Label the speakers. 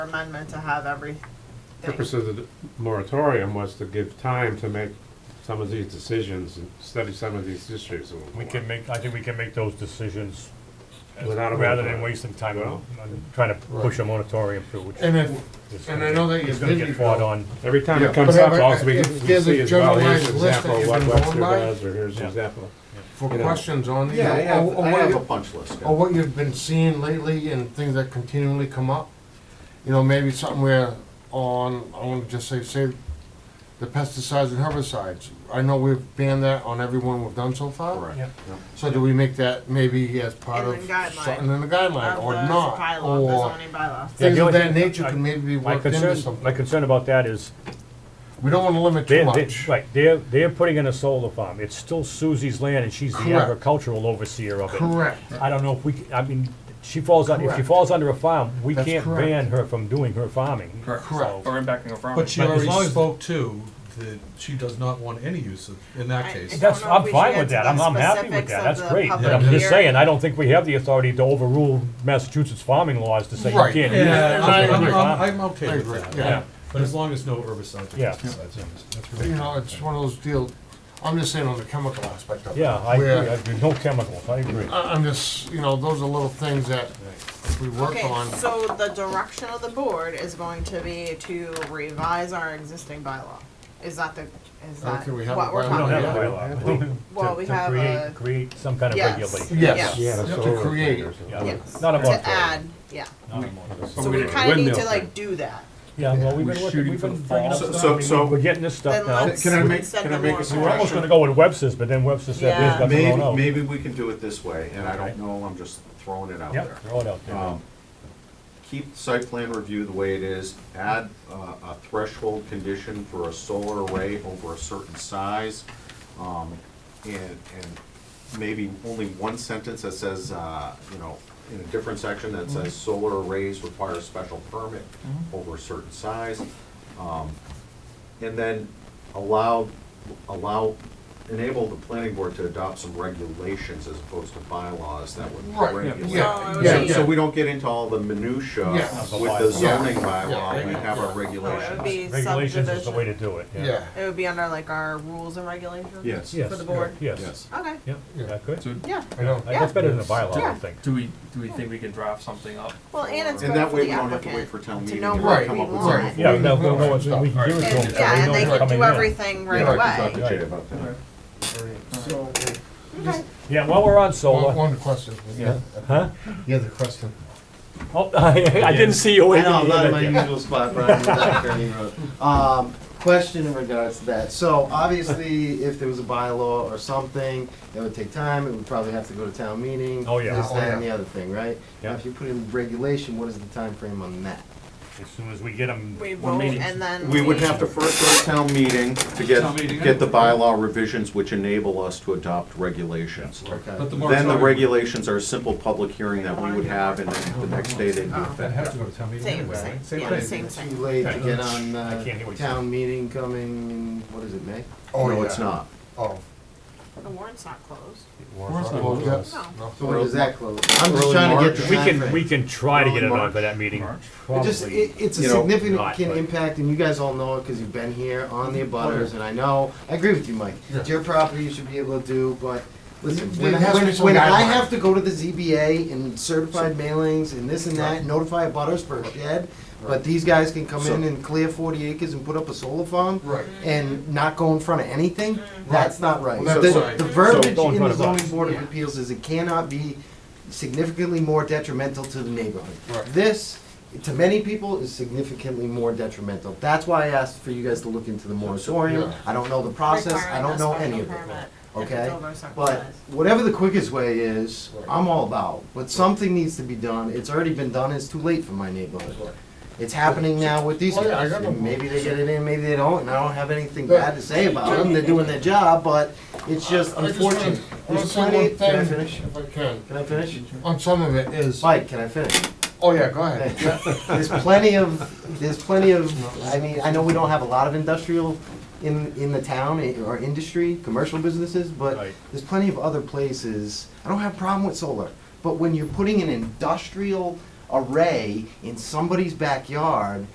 Speaker 1: amendment to have everything.
Speaker 2: purpose of the moratorium was to give time to make some of these decisions and study some of these issues. a little
Speaker 3: We
Speaker 2: more.
Speaker 3: can make, I think we can make those decisions as-
Speaker 2: Without a
Speaker 3: rather
Speaker 2: moratorium.
Speaker 3: than wasting time on
Speaker 2: Well-
Speaker 3: on trying to push a moratorium through, which
Speaker 4: And
Speaker 3: is
Speaker 4: if, and I
Speaker 3: gonna
Speaker 4: know that
Speaker 3: get-
Speaker 4: you're
Speaker 3: is gonna
Speaker 4: busy,
Speaker 3: get fought
Speaker 4: Bill.
Speaker 3: on.
Speaker 2: Every time
Speaker 4: Yeah.
Speaker 2: it comes
Speaker 4: But
Speaker 2: up,
Speaker 4: if-
Speaker 2: all we we
Speaker 4: if there's a
Speaker 2: see is, well, here's
Speaker 4: generalized
Speaker 2: an
Speaker 4: list
Speaker 2: example
Speaker 4: that
Speaker 2: of
Speaker 4: you've
Speaker 2: what
Speaker 4: been
Speaker 2: Webster
Speaker 4: going by?
Speaker 2: does, or here's an
Speaker 3: Yeah.
Speaker 2: example.
Speaker 4: for
Speaker 2: you know.
Speaker 4: questions on these,
Speaker 5: Yeah, I
Speaker 4: or,
Speaker 5: have,
Speaker 4: or
Speaker 5: I have a
Speaker 4: what,
Speaker 5: punch list.
Speaker 4: or what you've been seeing lately and things that continually come up. You know, maybe something where on, I wanna just say, say, the pesticides and herbicides. I know we've banned that on everyone we've done so far.
Speaker 5: Correct.
Speaker 3: Yep.
Speaker 5: Yep.
Speaker 4: So do we make that maybe as part
Speaker 1: In the
Speaker 4: of
Speaker 1: guideline.
Speaker 4: something in the guideline,
Speaker 1: Of
Speaker 4: or
Speaker 1: the
Speaker 4: not,
Speaker 1: bylaw, the
Speaker 4: or
Speaker 1: zoning bylaw.
Speaker 3: Yeah, the
Speaker 4: things of
Speaker 3: only
Speaker 4: that
Speaker 3: thing-
Speaker 4: nature
Speaker 3: I-
Speaker 4: can maybe be
Speaker 3: My
Speaker 4: worked into
Speaker 3: concern, my
Speaker 4: something.
Speaker 3: concern about that is,
Speaker 4: We don't wanna limit too
Speaker 3: they're, they're-
Speaker 4: much.
Speaker 3: right, they're, they're putting in a solar farm, it's still Susie's land and she's the
Speaker 4: Correct.
Speaker 3: agricultural overseer of it.
Speaker 4: Correct.
Speaker 3: I don't know if we, c- I mean, she falls, un- if she
Speaker 4: Correct.
Speaker 3: falls under a farm, we
Speaker 4: That's
Speaker 3: can't
Speaker 4: correct.
Speaker 3: ban her from doing her farming.
Speaker 6: Correct.
Speaker 3: So-
Speaker 6: Or impacting a farm.
Speaker 7: But she
Speaker 3: But
Speaker 7: already
Speaker 3: as long as-
Speaker 7: spoke to that she does not want any use of, in that
Speaker 1: I-
Speaker 7: case.
Speaker 1: I-
Speaker 3: That's,
Speaker 1: don't know if
Speaker 3: I'm
Speaker 1: we
Speaker 3: fine
Speaker 1: should
Speaker 3: with
Speaker 1: get
Speaker 3: that,
Speaker 1: to
Speaker 3: I'm,
Speaker 1: the
Speaker 3: I'm happy with
Speaker 1: specifics
Speaker 3: that,
Speaker 1: of
Speaker 3: that's
Speaker 1: the
Speaker 3: great, but
Speaker 1: public
Speaker 3: I'm just
Speaker 1: hearing.
Speaker 3: saying, I don't think we have the authority to overrule Massachusetts farming laws to say you
Speaker 4: Right.
Speaker 3: can't. use
Speaker 7: Yeah,
Speaker 3: it.
Speaker 7: I'm, I'm-
Speaker 3: You're
Speaker 7: I'm-
Speaker 3: fine.
Speaker 7: I'm okay
Speaker 4: I
Speaker 7: with
Speaker 4: agree,
Speaker 7: that.
Speaker 4: yeah.
Speaker 7: But as long as no herbicides. or
Speaker 3: Yeah.
Speaker 7: pesticides, that's
Speaker 4: You
Speaker 7: really-
Speaker 4: know, it's one of those deals, I'm just saying on the chemical aspect of it.
Speaker 3: Yeah, I
Speaker 4: where-
Speaker 3: agree, I agree, no chemicals, I agree.
Speaker 4: I- I'm just, you know, those are little things that if we work
Speaker 1: Okay,
Speaker 4: on.
Speaker 1: so the direction of the board is going to be to revise our existing bylaw. Is that the, is
Speaker 4: I don't
Speaker 1: that
Speaker 4: think we have
Speaker 1: what
Speaker 4: a
Speaker 1: we're
Speaker 4: bylaw
Speaker 3: We
Speaker 1: talking
Speaker 3: don't have a
Speaker 1: about?
Speaker 3: bylaw. I think
Speaker 1: Well,
Speaker 3: to-
Speaker 1: we
Speaker 3: to
Speaker 1: have
Speaker 3: create-
Speaker 1: a-
Speaker 3: Create some kind of
Speaker 1: Yes.
Speaker 3: regulation.
Speaker 4: Yes.
Speaker 2: Yeah,
Speaker 1: Yes,
Speaker 2: the
Speaker 4: To
Speaker 2: solar
Speaker 4: create.
Speaker 2: thing or something.
Speaker 3: Yeah.
Speaker 1: yes,
Speaker 3: Not a
Speaker 1: to
Speaker 3: moratorium.
Speaker 1: add, yeah.
Speaker 3: Not a moratorium.
Speaker 1: So we
Speaker 2: Windmill
Speaker 1: kinda need to
Speaker 2: thing.
Speaker 1: like do that.
Speaker 3: Yeah, well, we've
Speaker 5: We're
Speaker 3: been working,
Speaker 5: shooting
Speaker 3: we've
Speaker 5: for
Speaker 3: been
Speaker 5: the
Speaker 3: bringing up
Speaker 5: fall.
Speaker 3: stuff,
Speaker 5: So-
Speaker 3: I
Speaker 5: so-
Speaker 3: mean, we're getting this stuff
Speaker 1: Then
Speaker 3: now.
Speaker 1: let's
Speaker 5: Can I make-
Speaker 1: set
Speaker 5: can
Speaker 1: the
Speaker 5: I make a
Speaker 3: We're
Speaker 1: moratorium.
Speaker 3: almost gonna go with Webster's, but then Webster said,
Speaker 1: Yeah.
Speaker 3: there's nothing going
Speaker 5: Maybe,
Speaker 3: on.
Speaker 5: maybe we can do it this way, and I
Speaker 3: Okay.
Speaker 5: don't know, I'm just throwing it out
Speaker 3: Yep,
Speaker 5: there.
Speaker 3: throw it out there.
Speaker 5: Um, Keep the site plan review the way it is, add uh, a threshold condition for a solar array over a certain size. um, And, and maybe only one sentence that says, uh, you know, in a different section that says solar arrays require a special permit over a certain size. Um, And then allow, allow, enable the planning board to adopt some regulations as opposed to bylaws that would
Speaker 4: Right,
Speaker 5: regulate.
Speaker 4: Yeah,
Speaker 1: So
Speaker 4: yeah,
Speaker 5: So,
Speaker 1: it
Speaker 5: so
Speaker 4: yeah.
Speaker 5: we don't get into all the minutia
Speaker 4: Yeah.
Speaker 5: with the zoning bylaw,
Speaker 4: Yeah.
Speaker 5: we have our
Speaker 1: would
Speaker 5: regulations.
Speaker 1: be
Speaker 3: Regulations is the way to
Speaker 1: subdivision.
Speaker 3: do it, yeah.
Speaker 4: Yeah,
Speaker 1: It would be under like our rules and regulations?
Speaker 5: Yes.
Speaker 3: Yes.
Speaker 1: For the board?
Speaker 3: Yes,
Speaker 5: Yes.
Speaker 1: Okay,
Speaker 3: yeah,
Speaker 4: Yeah.
Speaker 3: that good.
Speaker 6: So
Speaker 1: yeah.
Speaker 4: I know.
Speaker 3: Uh, That's better than a
Speaker 4: Yeah.
Speaker 3: bylaw, I
Speaker 1: Yeah.
Speaker 3: think.
Speaker 6: do we, do we think we can draft something up?
Speaker 1: Well, and it's
Speaker 5: And
Speaker 1: good
Speaker 5: that
Speaker 1: for
Speaker 5: way
Speaker 1: the
Speaker 5: we don't have to wait
Speaker 1: applicant
Speaker 5: for town
Speaker 1: to
Speaker 5: meeting
Speaker 1: know
Speaker 5: to
Speaker 1: what
Speaker 5: come
Speaker 1: we
Speaker 5: up with
Speaker 1: want.
Speaker 5: something.
Speaker 3: Yeah, no, no, no, it's- we can give it to them.
Speaker 1: And, yeah, and they
Speaker 3: know
Speaker 1: can
Speaker 3: coming
Speaker 1: do
Speaker 3: in.
Speaker 1: everything right
Speaker 4: Yeah.
Speaker 1: away.
Speaker 5: Jay about that.
Speaker 4: So,
Speaker 1: Okay.
Speaker 3: Yeah, while we're on
Speaker 4: one,
Speaker 3: solar,
Speaker 4: one question.
Speaker 6: Yeah.
Speaker 3: huh?
Speaker 4: Yeah, the question.
Speaker 3: Oh, I, I didn't see you
Speaker 8: I
Speaker 3: waving.
Speaker 8: know, I'm not in my
Speaker 3: your hand.
Speaker 8: usual spot, but I'm in the back turning road. Um, question in regards to that. So obviously, if there was a bylaw or something, it would take time, it would probably have to go to town meeting.
Speaker 3: Oh, yeah.
Speaker 8: This,
Speaker 4: Oh,
Speaker 8: that, and
Speaker 4: yeah.
Speaker 8: the other thing, right?
Speaker 3: Yeah.
Speaker 8: Now, if you put in regulation, what is the time frame on that?
Speaker 3: As soon as we get them.
Speaker 1: We vote and then.
Speaker 5: We would have to first go to town meeting to
Speaker 6: Town meeting,
Speaker 5: get,
Speaker 6: yeah.
Speaker 5: get the bylaw revisions which enable us to adopt regulations.
Speaker 8: Okay.
Speaker 7: But the
Speaker 5: Then the
Speaker 7: moratorium-
Speaker 5: regulations are a simple public hearing that we would have and then the next day they'd be
Speaker 7: Oh, That has
Speaker 5: effective.
Speaker 7: to go to town meeting
Speaker 1: Same,
Speaker 7: anyway,
Speaker 1: same,
Speaker 7: right? Same
Speaker 1: yeah,
Speaker 7: thing.
Speaker 1: same,
Speaker 8: Too
Speaker 1: same.
Speaker 8: late to get on,
Speaker 3: I
Speaker 8: uh,
Speaker 3: can't hear what you're
Speaker 8: town meeting coming, in what is it, May?
Speaker 4: Oh,
Speaker 5: No,
Speaker 4: yeah.
Speaker 5: it's not.
Speaker 4: Oh.
Speaker 1: The warrant's not closed.
Speaker 4: Well, yes,
Speaker 1: No.
Speaker 4: no.
Speaker 8: So when does that close? I'm
Speaker 5: Early
Speaker 8: just trying to get
Speaker 5: March.
Speaker 8: the
Speaker 3: We
Speaker 8: time
Speaker 3: can,
Speaker 8: frame.
Speaker 3: we can try to
Speaker 5: Early
Speaker 3: get it on
Speaker 5: March.
Speaker 3: for that meeting.
Speaker 8: It just,
Speaker 3: Probably.
Speaker 8: it, it's a
Speaker 5: You know,
Speaker 3: not,
Speaker 8: significant
Speaker 3: but-
Speaker 8: impact, and you guys all know it because you've been here on the abutters, and I know, I agree with you, Mike. It's your property, you should be able to do, but listen,
Speaker 4: There
Speaker 8: when,
Speaker 4: has to be
Speaker 8: when,
Speaker 4: some
Speaker 8: when I
Speaker 4: guideline.
Speaker 8: have to go to the ZBA and certified mailings and this and that, notify abutters for a shed, but these guys can come in
Speaker 5: So-
Speaker 8: and clear forty acres and put up a solar farm
Speaker 4: Right.
Speaker 8: and not go in front of anything, that's not right.
Speaker 4: Well, that's
Speaker 8: The,
Speaker 4: right.
Speaker 8: the
Speaker 3: So
Speaker 8: verbiage
Speaker 3: go in
Speaker 8: in
Speaker 3: front of
Speaker 8: the zoning
Speaker 3: us.
Speaker 8: board of
Speaker 1: Yeah.
Speaker 8: appeals is it cannot be significantly more detrimental to the neighborhood.
Speaker 4: Right.
Speaker 8: This, to many people, is significantly more detrimental. That's why I asked for you guys to look into the moratorium.
Speaker 4: Yeah.
Speaker 8: I don't know the process, I
Speaker 1: Requiring a
Speaker 8: don't know
Speaker 1: special
Speaker 8: any of it,
Speaker 1: permit if it's
Speaker 8: okay?
Speaker 1: over a certain
Speaker 8: But
Speaker 1: size.
Speaker 8: whatever the quickest way is, I'm all about, but something needs to be done. It's already been done, it's too late for my neighborhood. It's happening now with these
Speaker 4: Oh, yeah, I
Speaker 8: guys.
Speaker 4: got
Speaker 8: And
Speaker 4: no-
Speaker 8: Maybe they get it in, maybe they don't, and I don't have anything
Speaker 4: Yeah.
Speaker 8: bad to say about them. They're doing their job, but it's just
Speaker 4: I just wanna-
Speaker 8: unfortunate.
Speaker 4: I wanna
Speaker 8: There's
Speaker 4: say one
Speaker 8: plenty, can I
Speaker 4: thing,
Speaker 8: finish?
Speaker 4: If I can,
Speaker 8: Can I finish?
Speaker 4: on some of it is,
Speaker 8: Mike, can I finish?
Speaker 4: oh yeah, go ahead.
Speaker 8: There's plenty of, there's plenty of, I mean, I know we don't have a lot of industrial in, in the town, eh, or industry, commercial businesses, but
Speaker 3: Right.
Speaker 8: there's plenty of other places. I don't have a problem with solar, but when you're putting an industrial array in somebody's backyard